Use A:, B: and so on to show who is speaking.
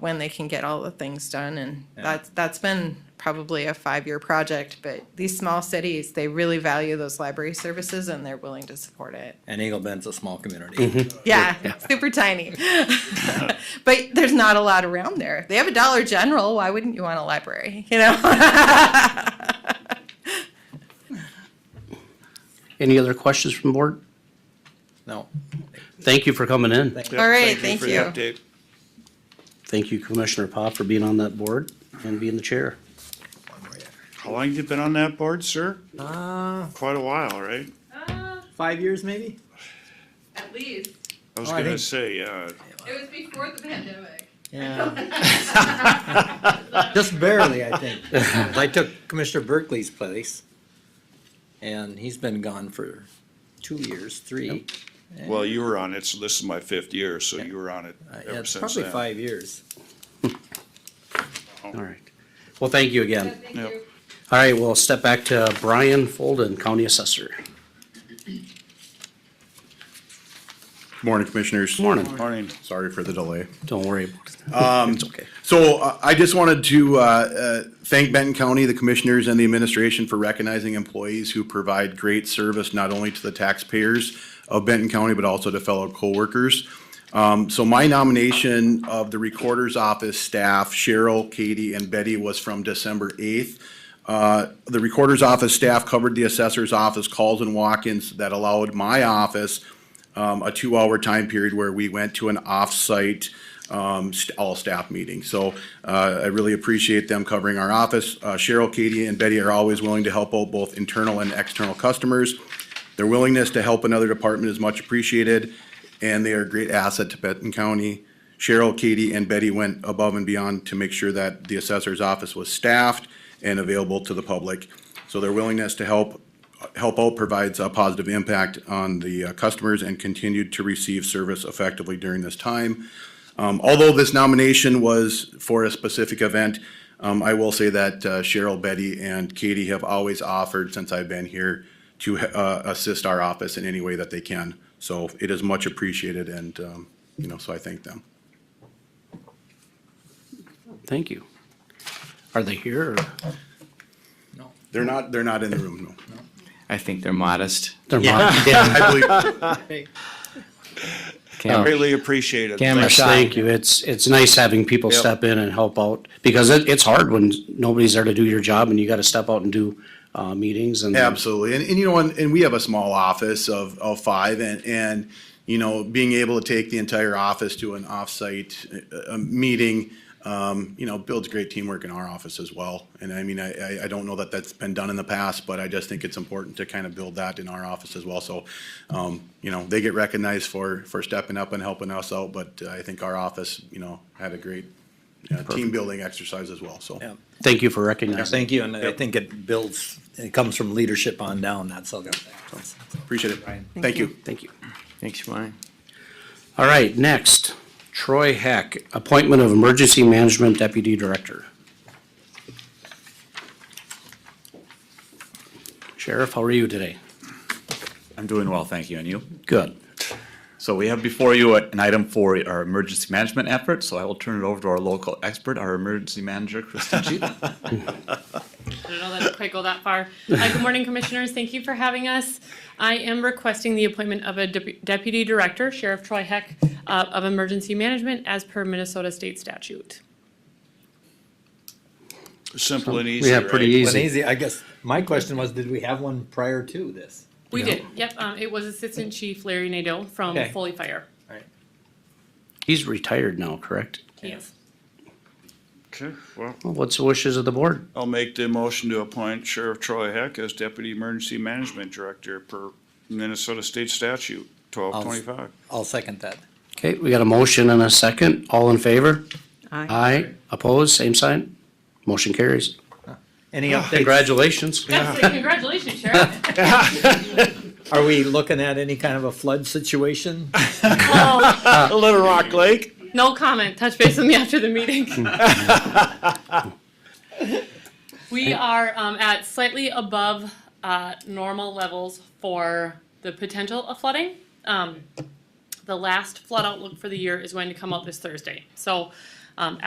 A: when they can get all the things done. And
B: Yeah.
A: that's, that's been probably a five-year project, but these small cities, they really value those library services and they're willing to support it.
B: And Eagle Bend's a small community.
A: Yeah, super tiny. but there's not a lot around there. They have a Dollar General. Why wouldn't you want a library? You know?
C: Any other questions from board?
B: No.
C: Thank you for coming in.
B: Thank-
A: All right, thank
D: for
A: you.
D: the update.
C: Thank you, Commissioner Pop, for being on that board and being the chair.
D: How long you been on that board, sir?
B: Uh,
D: Quite a while, right?
B: five years maybe?
A: At least.
D: I was
B: Oh, I
D: gonna
B: think-
D: say, uh,
A: It was before the pandemic.
B: Yeah. Just barely, I think. I took Commissioner Berkeley's place. And he's been gone for two years, three.
D: well, you were on it, so this is my fifth year, so you were on it
B: Uh, yeah,
D: ever
B: it's
D: since
B: probably
D: then.
B: five years.
C: All right. Well, thank you again.
A: Thank
D: Yep.
C: All right, we'll step back to Brian Folden, County Assessor.
E: Morning, Commissioners.
C: Morning.
D: Morning.
E: Sorry for the delay.
C: Don't worry about it. It's okay.
E: So uh, I just wanted to uh, uh, thank Benton County, the commissioners and the administration for recognizing employees who provide great service not only to the taxpayers of Benton County, but also to fellow coworkers. Um, So my nomination of the Recorder's Office staff, Cheryl, Katie, and Betty, was from December eighth. Uh, The Recorder's Office staff covered the Assessor's Office calls and walk-ins that allowed my office um, a two-hour time period where we went to an off-site, um, st- all-staff meeting. So, uh, I really appreciate them covering our office. Uh, Cheryl, Katie, and Betty are always willing to help out both internal and external customers. Their willingness to help another department is much appreciated, and they are a great asset to Benton County. Cheryl, Katie, and Betty went above and beyond to make sure that the assessor's office was staffed and available to the public. So their willingness to help Help Out provides a positive impact on the uh, customers and continued to receive service effectively during this time. Um, although this nomination was for a specific event, um, I will say that uh, Cheryl, Betty, and Katie have always offered since I've been here to uh, assist our office in any way that they can. So it is much appreciated, and um, you know, so I thank them.
C: Thank you. Are they here? or-
E: They're not. They're not in the room. No.
F: I think they're modest.
C: They're mod- yeah.
E: I believe.
F: Cam-
D: Greatly appreciated.
F: Camera
C: Yes,
F: shot.
C: Thank you. It's, it's nice having people
D: Yep.
C: step in and help out because it, it's hard when nobody's there to do your job and you got to step out and do, uh, meetings and.
E: Absolutely. And, and you know, and, and we have a small office of, of five and, and, you know, being able to take the entire office to an offsite, uh, uh, meeting, um, you know, builds great teamwork in our office as well. And I mean, I, I, I don't know that that's been done in the past, but I just think it's important to kind of build that in our office as well. So, um, you know, they get recognized for, for stepping up and helping us out, but uh, I think our office, you know, had a great, uh, team building exercise as well, so.
B: Yeah.
C: Thank you for
B: Yeah,
C: recognizing.
B: Thank you, and I think it builds, it comes from leadership on down, that's all.
E: Appreciate it. Thank you.
C: Thank you.
F: Thanks, Brian.
C: All right, next, Troy Heck, appointment of Emergency Management Deputy Director. Sheriff, how are you today?
G: I'm doing well, thank you, and you?
C: Good.
G: So we have before you an item for our emergency management effort, so I will turn it over to our local expert, our emergency manager, Kristen Cheatham.
H: I don't know that it quite go that far. Uh, Good morning, Commissioners. Thank you for having us. I am requesting the appointment of a dep- Deputy Director, Sheriff Troy Heck, uh, of Emergency Management as per Minnesota State statute.
D: Simple and easy,
C: We have pretty
D: right?
B: And
C: easy.
B: easy, I guess, my question was, did we have one prior to this?
H: We did, yep. um, It was Assistant Chief Larry Nadeau from
B: Okay.
H: Foley Fire.
C: He's retired now, correct?
H: Yes.
D: Okay, well,
C: Well, What's the wishes of the board?
D: I'll make the motion to appoint Sheriff Troy Heck as Deputy Emergency Management Director per Minnesota State Statute twelve twenty-five.
B: I'll second that.
C: Okay, we got a motion and a second. All in favor?
A: Aye.
C: Aye. Opposed, same sign? Motion carries.
B: Any
D: Ah,
B: updates?
C: Congratulations.
H: Yes, congratulations, Sheriff.
B: Are we looking at any kind of a flood situation?
H: Well,
D: Little Rock Lake?
H: No comment. Touch base with me after the meeting. We are um, at slightly above uh, normal levels for the potential of flooding. Um, The last flood outlook for the year is going to come out this Thursday. So um,